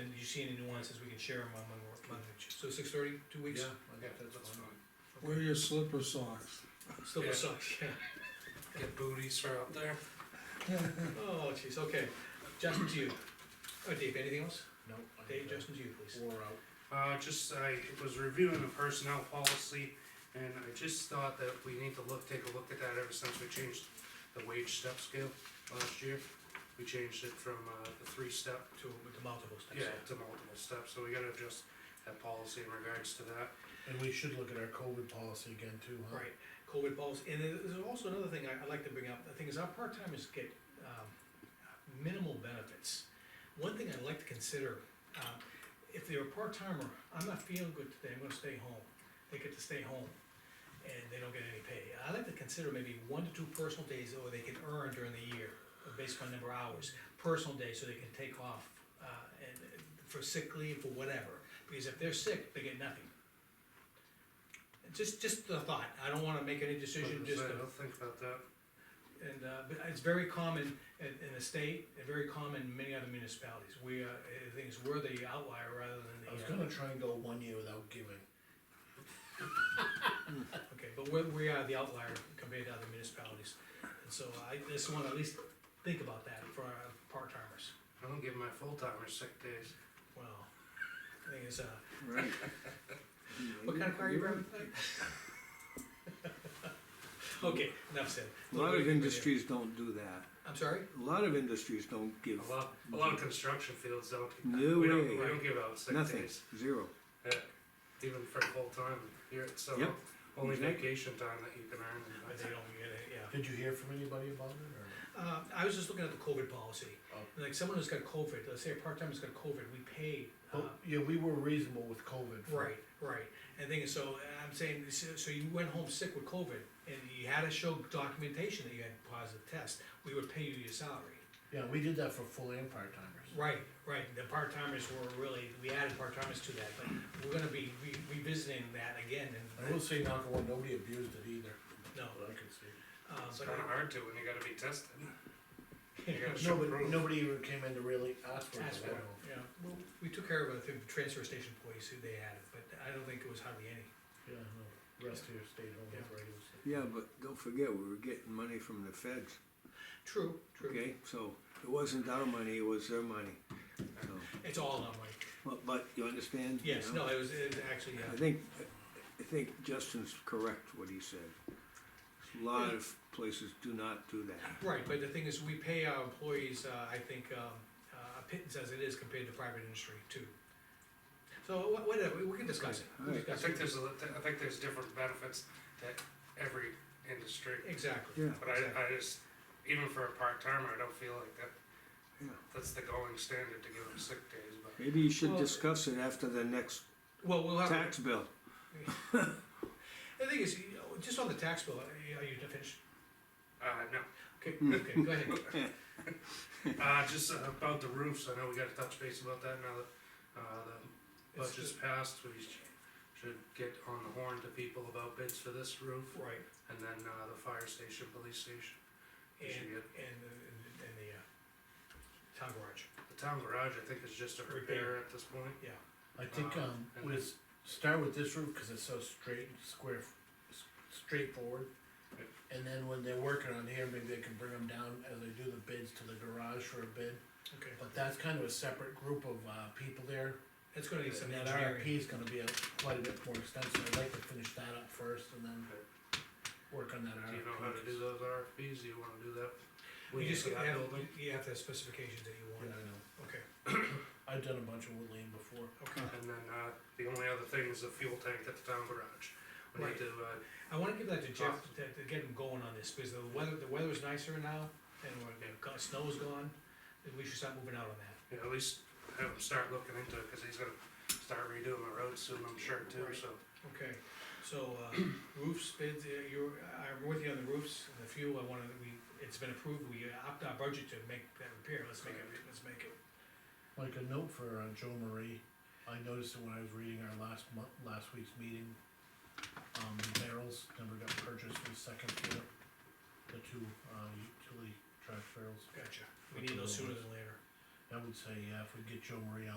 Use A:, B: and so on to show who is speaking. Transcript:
A: you see any nuances, we can share them among, among, so six thirty, two weeks?
B: Yeah, I think that's
A: That's
B: fine.
A: fine.
C: Wear your slipper socks.
A: Still
B: Yeah.
A: sucks, yeah.
B: Get booties for out there.
A: Oh, jeez, okay, Justin to you. Uh, Dave, anything else?
B: No. I
A: Dave,
B: think that
A: Justin to you, please.
B: Wore out.
D: Uh, just, I was reviewing the personnel policy, and I just thought that we need to look, take a look at that ever since we changed the wage step scale last year. We changed it from, uh, the three step
A: To, with the multiple steps.
D: yeah,
B: Uh-huh.
D: to multiple steps, so we gotta adjust that policy in regards to that.
B: And we should look at our COVID policy again too, huh?
A: Right, COVID policy, and there- there's also another thing I, I'd like to bring up, the thing is our part-timers get, um, minimal benefits. One thing I'd like to consider, um, if they're a part-timer, I'm not feeling good today, I'm gonna stay home, they get to stay home, and they don't get any pay. I like to consider maybe one to two personal days, or they can earn during the year, based on number of hours, personal days, so they can take off, uh, and, for sick leave, for whatever, because if they're sick, they get nothing. Just, just the thought, I don't wanna make any decision,
D: Like I
A: just
D: said,
A: a
D: I'll think about that.
A: and, uh, but it's very common in, in the state, and very common in many other municipalities, we, uh, the thing is, we're the outlier rather
B: I was
A: than the,
B: gonna try and go one year without giving.
A: uh, okay, but we're, we are the outlier compared to other municipalities. And so I just wanna at least think about that for our part-timers,
D: I don't give my full-timers sick days.
A: well, the thing is, uh,
C: Right.
A: what kind of car you driving today? Okay, enough said.
C: A lot of industries don't do that.
A: I'm sorry?
C: A lot of industries don't give,
D: A lot, a lot of construction fields don't,
C: No
D: we don't,
C: way.
D: we don't give out sick
C: nothing,
D: days.
C: zero.
D: Yeah, even for full-time, you're, so,
C: Yep,
D: only
C: exactly.
D: vacation time that you can earn. and
A: But
D: that's
A: they don't get it, yeah.
B: Did you hear from anybody about it or?
A: Uh, I was just looking at the COVID policy.
B: Oh.
A: Like someone who's got COVID, let's say a part-timer's got COVID, we pay, uh,
B: Well, yeah, we were reasonable with COVID. for-
A: right, right. And thing is, so I'm saying, so so you went home sick with COVID and you had to show documentation that you had positive test, we would pay you your salary.
B: Yeah, we did that for full and part timers.
A: Right, right. The part-timers were really, we added part-timers to that, but we're gonna be re- revisiting that again
B: I
A: and,
B: will say, knock on wood, nobody abused it either,
A: no.
B: that I could see.
A: uh,
D: It's
A: but
D: kinda hard to when you gotta be tested. You gotta show
B: Nobody,
D: proof.
B: nobody even came in to really ask for it.
A: Ask
B: I
A: for it,
B: don't know.
A: yeah. Well, We took care of it through the transfer station employees who they added, but I don't think it was hardly any.
B: Yeah, no, rest here stayed home with regular sick.
C: Yeah, but don't forget, we were getting money from the feds,
A: True, true.
C: okay? So it wasn't our money, it was their money. So,
A: It's all online.
C: but, but you understand? you
A: Yes,
C: know?
A: no, it was, it was actually,
C: I
A: yeah.
C: think, I think Justin's correct what he said. A lot of places do not do that.
A: Right, but the thing is, we pay our employees, uh, I think, um, uh, a pittance as it is compared to private industry too. So wha- whatever, we- we can discuss it. We'll
C: Alright.
D: I
A: discuss
D: think
A: it.
D: there's, a- I think there's different benefits that every industry,
A: Exactly.
C: Yeah,
D: but I, I just, even for a part-timer, I don't feel like that,
C: yeah.
D: that's the going standard to give them sick days, but.
C: Maybe you should
A: Well-
C: discuss it after the next
A: Well, we'll have,
C: tax bill.
A: the thing is, you know, just on the tax bill, are you finished?
D: Uh, no,
A: Okay, okay, go ahead.
D: uh, just about the roofs, I know we gotta touch base about that now that, uh, the
A: It's
D: budget's passed, we sh- should get on the horn to people about bids for this roof,
A: Right,
D: and then, uh, the fire station, police station.
A: and,
D: We should
A: and,
D: get,
A: the- and the- and the, uh, town garage,
D: the town garage, I think, is just a repair at this point.
A: yeah.
B: I think,
D: Uh,
B: um,
D: and
B: we
D: then-
B: s- start with this roof, cause it's so straight, and square, f- s- straightforward.
D: Yep.
B: And then when they're working on here, maybe they can bring them down as they do the bids to the garage for a bid,
A: Okay,
B: but that's kind of a separate group of, uh, people there.
A: that's gonna need some
B: And that
A: engineering.
B: RFP is gonna be a, quite a bit more extensive, I'd like to finish that up first and then work on that RFP.
D: Do you know how to do those RFPs, do you wanna do that?
A: You just
D: For that
A: have,
D: building?
A: you have the specifications that you
B: Yeah,
A: want,
B: I know,
A: okay,
B: I've done a bunch of woodland before.
A: okay.
D: And then, uh, the only other thing is the fuel tank at the town garage. We
A: Right.
D: need to, uh,
A: I wanna give that to Jeff to, to get him going on this, because the weather, the weather is nicer now, and we're, the co- snow's gone, and we should start moving out on that.
D: you know, at least have him start looking into it, cause he's gonna start redoing the road soon, I'm sure too,
A: Right.
D: so.
A: Okay, so, uh, roofs bids, uh, you're, I'm with you on the roofs, and the fuel, I wanna, we, it's been approved, we upped our budget to make that repair, let's make it, let's make it.
B: Like a note for uh, Joe Marie, I noticed that when I was reading our last month, last week's meeting, um, the barrels never got purchased for the second year. The two, uh, utility trash barrels,
A: Gotcha, we need those sooner than later.
B: I would say, yeah, if we get Joe Marie on